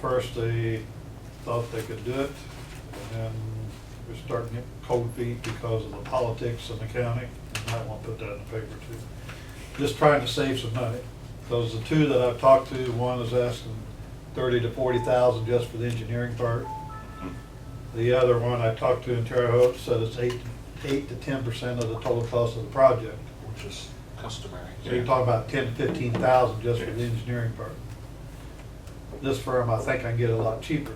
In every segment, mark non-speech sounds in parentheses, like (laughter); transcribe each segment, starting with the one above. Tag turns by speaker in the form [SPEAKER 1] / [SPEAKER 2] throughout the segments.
[SPEAKER 1] first, they thought they could do it, and then we're starting to get cold feet because of the politics in the county, and I want to put that in the paper too. Just trying to save some money, because the two that I've talked to, one is asking thirty to forty thousand just for the engineering part. The other one I talked to in Terre Haute said it's eight, eight to ten percent of the total cost of the project.
[SPEAKER 2] which is customary.
[SPEAKER 1] So you're talking about ten, fifteen thousand just for the engineering part. This firm, I think I can get a lot cheaper.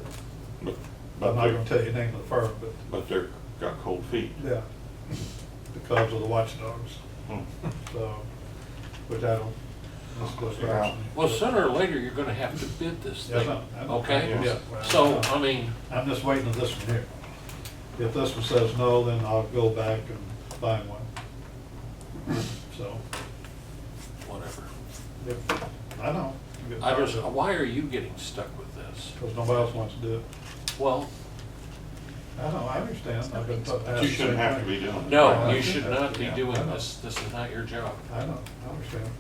[SPEAKER 3] But,
[SPEAKER 1] I'm not gonna
[SPEAKER 3] but
[SPEAKER 1] tell
[SPEAKER 3] they're,
[SPEAKER 1] you the name of the firm, but,
[SPEAKER 3] but they're, got cold feet.
[SPEAKER 1] yeah, because of the watchdogs, (laughs)
[SPEAKER 3] Hmm.
[SPEAKER 1] so, which I don't, this goes for
[SPEAKER 3] Yeah.
[SPEAKER 1] action.
[SPEAKER 2] Well, sooner or later, you're gonna have to bid this
[SPEAKER 1] Yes,
[SPEAKER 2] thing,
[SPEAKER 1] I know.
[SPEAKER 2] okay?
[SPEAKER 1] Yeah.
[SPEAKER 2] So, I mean,
[SPEAKER 1] I'm just waiting on this one here. If this one says no, then I'll go back and buy one. So,
[SPEAKER 2] whatever.
[SPEAKER 1] if, I know. you get
[SPEAKER 2] I just,
[SPEAKER 1] tired of it,
[SPEAKER 2] why are you getting stuck with this?
[SPEAKER 1] Cause nobody else wants to do it.
[SPEAKER 2] Well,
[SPEAKER 1] I know, I understand, I've been. put-
[SPEAKER 3] You shouldn't have to be doing it.
[SPEAKER 2] no, you should not be
[SPEAKER 1] Yeah, I
[SPEAKER 2] doing
[SPEAKER 1] know.
[SPEAKER 2] this, this is not your job.
[SPEAKER 1] I know, I understand.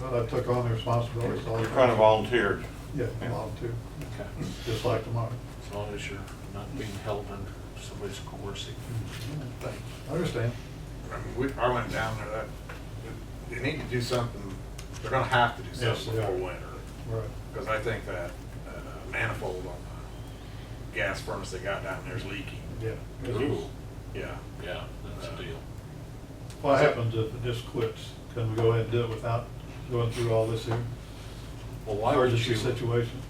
[SPEAKER 1] Well, I took on the responsibility, so.
[SPEAKER 3] You're kind of volunteered.
[SPEAKER 1] Yeah, volunteer,
[SPEAKER 2] Okay.
[SPEAKER 1] just like tomorrow.
[SPEAKER 2] As long as you're not being held under somebody's coercive.
[SPEAKER 1] Thanks. I understand.
[SPEAKER 4] I mean, we, I went down there, that, they need to do something, they're gonna have to do
[SPEAKER 1] Yes,
[SPEAKER 4] something
[SPEAKER 1] they are.
[SPEAKER 4] before winter.
[SPEAKER 1] Right.
[SPEAKER 4] Because I think that, that uh, manifold on the gas furnace they got down there is leaking.
[SPEAKER 1] Yeah.
[SPEAKER 2] Ooh.
[SPEAKER 4] Yeah.
[SPEAKER 2] Yeah, that's a deal.
[SPEAKER 1] What happens if it just quits? Can we go ahead and do it without going through all this here?
[SPEAKER 2] Well, why would you?
[SPEAKER 1] Emergency situation?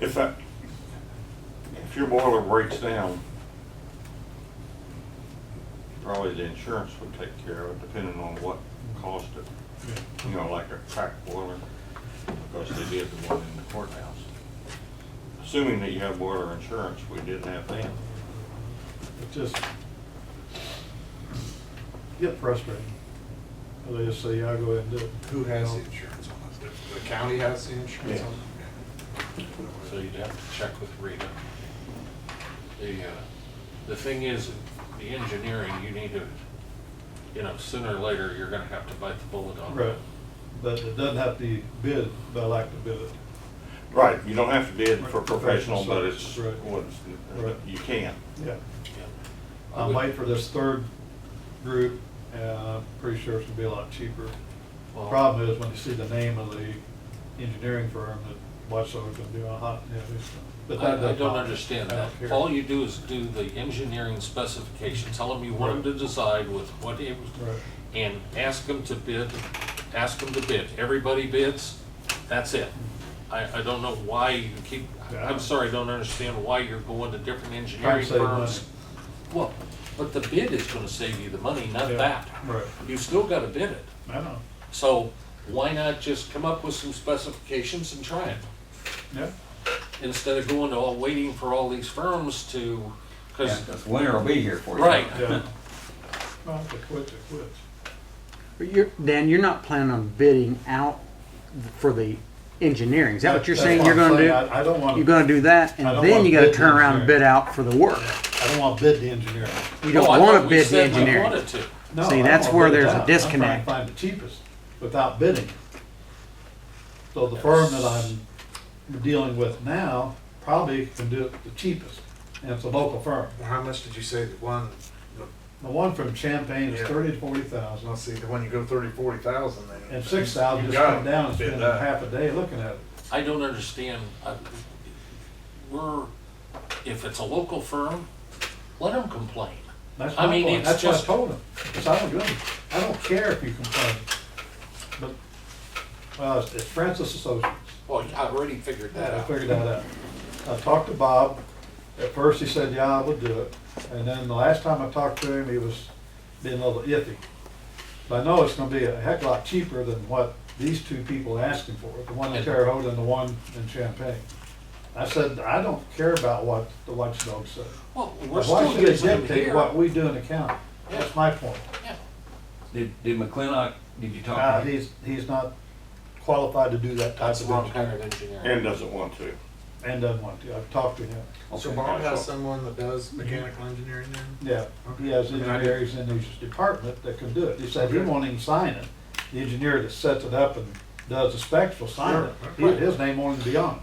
[SPEAKER 3] If that, if your boiler breaks down, probably the insurance would take care of it, depending on what caused it.
[SPEAKER 1] Yeah.
[SPEAKER 3] You know, like a crack boiler, because they did the one in the courthouse. Assuming that you have boiler insurance, we didn't have that.
[SPEAKER 1] It just get frustrating. They just say, yeah, go ahead and do it.
[SPEAKER 4] Who has
[SPEAKER 1] You
[SPEAKER 4] the
[SPEAKER 1] know?
[SPEAKER 4] insurance on this? The- The county has the insurance
[SPEAKER 3] Yeah.
[SPEAKER 4] on
[SPEAKER 2] So
[SPEAKER 4] it?
[SPEAKER 2] you'd have to check with Rita. The, uh, the thing is, the engineering, you need to, you know, sooner or later, you're gonna have to bite the bullet on
[SPEAKER 1] Right,
[SPEAKER 2] that.
[SPEAKER 1] but it doesn't have to be bid, but I like to bid it.
[SPEAKER 3] Right, you don't have to bid for
[SPEAKER 1] Right,
[SPEAKER 3] professional,
[SPEAKER 1] professional
[SPEAKER 3] but it's,
[SPEAKER 1] services, right.
[SPEAKER 3] what's-
[SPEAKER 1] Right.
[SPEAKER 3] you can.
[SPEAKER 1] Yeah.
[SPEAKER 2] Yeah. I
[SPEAKER 1] I'm
[SPEAKER 2] would-
[SPEAKER 1] waiting for this third group, and I'm pretty sure it's gonna be a lot cheaper. The
[SPEAKER 2] Well-
[SPEAKER 1] Problem is, when you see the name of the engineering firm that Watchdog's gonna do on hot, yeah, it's- but that
[SPEAKER 2] I, I
[SPEAKER 1] doesn't
[SPEAKER 2] don't
[SPEAKER 1] bother me.
[SPEAKER 2] understand
[SPEAKER 1] I
[SPEAKER 2] that.
[SPEAKER 1] don't care.
[SPEAKER 2] All you do is do the engineering specification, tell them you want them to decide with what it was,
[SPEAKER 1] Right.
[SPEAKER 2] and ask them to bid, ask them to bid. Everybody bids, that's it. I, I don't know why you keep, I'm sorry, I don't understand why you're going to different engineering
[SPEAKER 1] save
[SPEAKER 2] firms. Well, but the bid is gonna save you the money, not
[SPEAKER 1] Yeah,
[SPEAKER 2] that.
[SPEAKER 1] right.
[SPEAKER 2] You still gotta bid it.
[SPEAKER 1] I know,
[SPEAKER 2] So why not just come up with some specifications and try it?
[SPEAKER 1] yeah,
[SPEAKER 2] instead of going to all, waiting for all these firms to,
[SPEAKER 5] Yeah,
[SPEAKER 2] because,
[SPEAKER 5] because winter will be here for you.
[SPEAKER 2] right,
[SPEAKER 1] yeah. Well, if it quits, it quits.
[SPEAKER 6] But You're, Dan, you're not planning on bidding out for the engineering. Is that what you're
[SPEAKER 1] That's
[SPEAKER 6] saying
[SPEAKER 1] what
[SPEAKER 6] you're
[SPEAKER 1] I'm
[SPEAKER 6] gonna
[SPEAKER 1] saying.
[SPEAKER 6] do?
[SPEAKER 1] I I don't wanna.
[SPEAKER 6] You're gonna do that
[SPEAKER 1] I don't
[SPEAKER 6] and then
[SPEAKER 1] wanna
[SPEAKER 6] you gotta
[SPEAKER 1] bid the
[SPEAKER 6] turn around and
[SPEAKER 1] engineering.
[SPEAKER 6] bid out for the work.
[SPEAKER 1] I don't want to bid the engineering.
[SPEAKER 6] You
[SPEAKER 2] Oh, I
[SPEAKER 6] don't
[SPEAKER 2] thought
[SPEAKER 6] wanna
[SPEAKER 2] we
[SPEAKER 6] bid the
[SPEAKER 2] said we
[SPEAKER 6] engineering.
[SPEAKER 2] wanted to.
[SPEAKER 1] No,
[SPEAKER 6] See,
[SPEAKER 1] I
[SPEAKER 6] that's
[SPEAKER 1] don't
[SPEAKER 6] where
[SPEAKER 1] bid it
[SPEAKER 6] there's a
[SPEAKER 1] out. I'm trying to
[SPEAKER 6] disconnect.
[SPEAKER 1] Find the cheapest without bidding. So the firm that I'm dealing with now probably can do it the cheapest, and it's a local firm.
[SPEAKER 4] Well, How much did you say the one,
[SPEAKER 1] The one from Champaign is
[SPEAKER 4] Yeah.
[SPEAKER 1] thirty to forty thousand,
[SPEAKER 4] let's see, the one you go thirty, forty thousand then?
[SPEAKER 1] and six thousand
[SPEAKER 4] You
[SPEAKER 1] just
[SPEAKER 4] gotta
[SPEAKER 1] come down and
[SPEAKER 4] bid
[SPEAKER 1] spend
[SPEAKER 4] that.
[SPEAKER 1] half a day looking at it.
[SPEAKER 2] I don't understand, I- we're, if it's a local firm, let them complain.
[SPEAKER 1] That's
[SPEAKER 2] I
[SPEAKER 1] my
[SPEAKER 2] mean,
[SPEAKER 1] point,
[SPEAKER 2] it's
[SPEAKER 1] that's what I
[SPEAKER 2] just-
[SPEAKER 1] told him, 'Cause I don't do it. I don't care if you complain. But, well, it's- it's Francis Associates.
[SPEAKER 2] Well, I already figured that
[SPEAKER 1] I
[SPEAKER 2] out.
[SPEAKER 1] figured that out. I talked to Bob. At first, he said, yeah, I would do it. And then the last time I talked to him, he was being a little iffy. But I know it's gonna be a heck of a lot cheaper than what these two people are asking for, the one in Terre Haute and the one in Champaign. I said, I don't care about what the watchdog said.
[SPEAKER 2] Well, we're
[SPEAKER 1] Why
[SPEAKER 2] still
[SPEAKER 1] should they
[SPEAKER 2] using them
[SPEAKER 1] dictate
[SPEAKER 2] here.
[SPEAKER 1] what we do in the county? That's my point.
[SPEAKER 2] Yeah.
[SPEAKER 5] Did, did McClintock, did you
[SPEAKER 1] Uh,
[SPEAKER 5] talk to him?
[SPEAKER 1] he's, he's not qualified to do that type
[SPEAKER 2] That's the
[SPEAKER 1] of
[SPEAKER 2] wrong
[SPEAKER 1] thing.
[SPEAKER 2] kind of engineering.
[SPEAKER 3] And doesn't want to.
[SPEAKER 1] And doesn't want to. I've talked to him.
[SPEAKER 4] So
[SPEAKER 5] Okay.
[SPEAKER 4] Bob has someone that does
[SPEAKER 1] Mm-hmm.
[SPEAKER 4] mechanical engineering then?
[SPEAKER 1] Yeah, he has
[SPEAKER 4] Okay. I mean, I
[SPEAKER 1] engineers in his department that can do it. He said he
[SPEAKER 4] Okay.
[SPEAKER 1] won't even sign it. The engineer that sets it up and does the specs will sign
[SPEAKER 4] Sure.
[SPEAKER 1] it. He- His name won't even be on it.